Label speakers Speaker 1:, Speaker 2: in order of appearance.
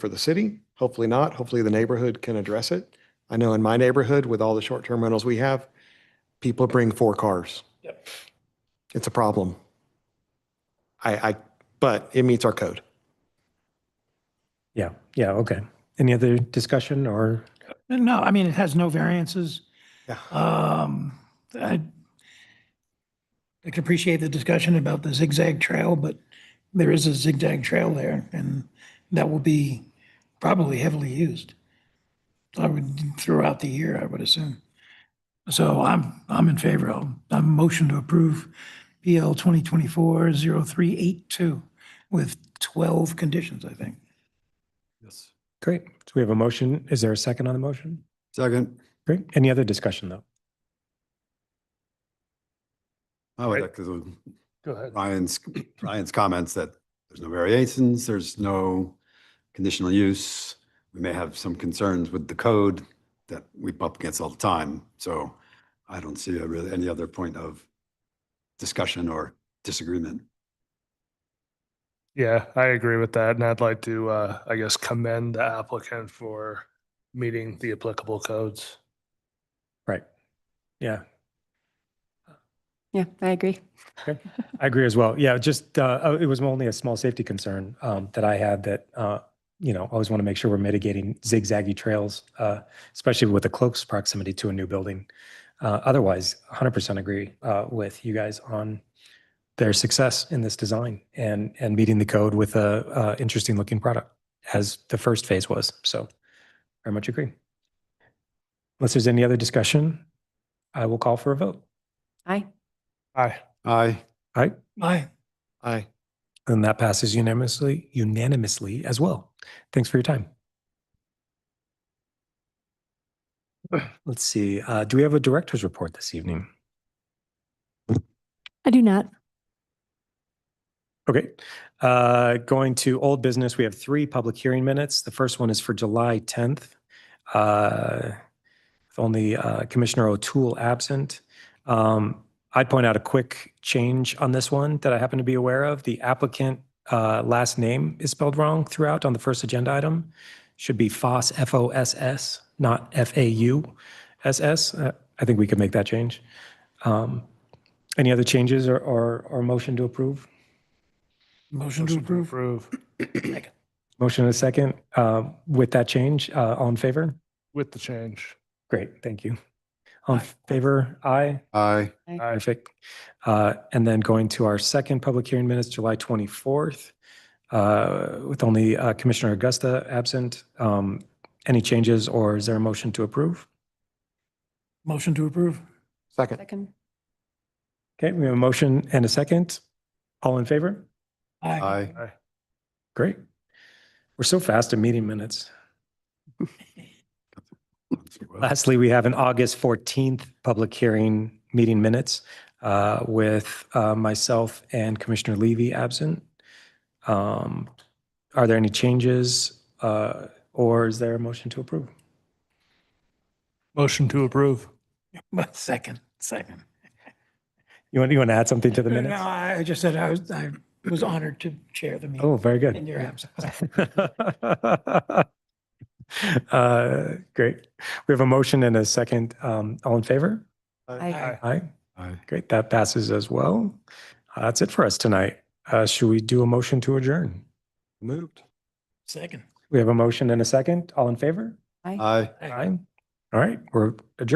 Speaker 1: for the city. Hopefully not. Hopefully the neighborhood can address it. I know in my neighborhood, with all the short-term rentals we have, people bring four cars.
Speaker 2: Yep.
Speaker 1: It's a problem. I, I, but it meets our code.
Speaker 3: Yeah, yeah, okay. Any other discussion or,
Speaker 4: No, I mean, it has no variances.
Speaker 1: Yeah.
Speaker 4: Um, I I can appreciate the discussion about the zigzag trail, but there is a zigzag trail there and that will be probably heavily used. I would, throughout the year, I would assume. So I'm, I'm in favor of, I'm motion to approve PL 2024-0382 with 12 conditions, I think.
Speaker 5: Yes.
Speaker 3: great. So we have a motion. Is there a second on the motion?
Speaker 5: Second,
Speaker 3: Great. Any other discussion though?
Speaker 5: I would
Speaker 3: Right.
Speaker 5: echo the-
Speaker 3: Go ahead.
Speaker 5: Ryan's, Ryan's comments that there's no variations, there's no conditional use. We may have some concerns with the code that we bump against all the time. So I don't see a really any other point of discussion or disagreement.
Speaker 6: Yeah, I agree with that. And I'd like to, uh, I guess, commend the applicant for meeting the applicable codes.
Speaker 3: Right. Yeah,
Speaker 7: Yeah, I agree.
Speaker 3: I agree as well. Yeah, just, uh, uh, it was only a small safety concern, um, that I had that, uh, you know, always want to make sure we're mitigating zigzaggy trails, uh, especially with the close proximity to a new building. Uh, otherwise, hundred percent agree, uh, with you guys on their success in this design and, and meeting the code with a, uh, interesting looking product as the first phase was. So very much agree. Unless there's any other discussion, I will call for a vote.
Speaker 7: Aye.
Speaker 6: Aye.
Speaker 5: Aye.
Speaker 4: Aye.
Speaker 1: Aye.
Speaker 3: And that passes unanimously, unanimously as well. Thanks for your time. Let's see, uh, do we have a director's report this evening?
Speaker 7: I do not.
Speaker 3: Okay, uh, going to old business, we have three public hearing minutes. The first one is for July tenth. Uh, with only uh, Commissioner O'Toole absent. Um, I'd point out a quick change on this one that I happen to be aware of. The applicant uh, last name is spelled wrong throughout on the first agenda item. Should be Foss, F O S S, not F A U S S. Uh, I think we could make that change. Um, any other changes or, or, or motion to approve?
Speaker 4: Motion to approve.
Speaker 6: Approve.
Speaker 3: Motion and a second uh, with that change. uh, All in favor?
Speaker 6: With the change.
Speaker 3: Great, thank you. All in favor? Aye.
Speaker 5: Aye.
Speaker 6: Aye.
Speaker 3: Perfect. Uh, And then going to our second public hearing minutes, July 24th, uh, with only uh, Commissioner Augusta absent. Um, Any changes or is there a motion to approve?
Speaker 4: Motion to approve.
Speaker 1: Second.
Speaker 7: Second.
Speaker 3: Okay, we have a motion and a second. All in favor?
Speaker 5: Aye.
Speaker 3: Great. We're so fast at meeting minutes. Lastly, we have an August 14th public hearing meeting minutes uh, with uh, myself and Commissioner Levy absent. Um, Are there any changes uh, or is there a motion to approve?
Speaker 6: Motion to approve.
Speaker 4: Second, second.
Speaker 3: You want, you want to add something to the
Speaker 4: No,
Speaker 3: minutes?
Speaker 4: I I just said I was, I was honored to chair the meeting
Speaker 3: Oh, very good.
Speaker 4: in your absence.
Speaker 3: Uh, Great. We have a motion and a second. Um, All in favor?
Speaker 7: Aye.
Speaker 3: Aye.
Speaker 5: Aye.
Speaker 3: Great, that passes as well. Uh, That's it for us tonight. Uh, Should we do a motion to adjourn?
Speaker 1: Moved.
Speaker 4: Second.
Speaker 3: We have a motion and a second. All in favor?
Speaker 5: Aye.
Speaker 3: Aye. All right, we're adjourned.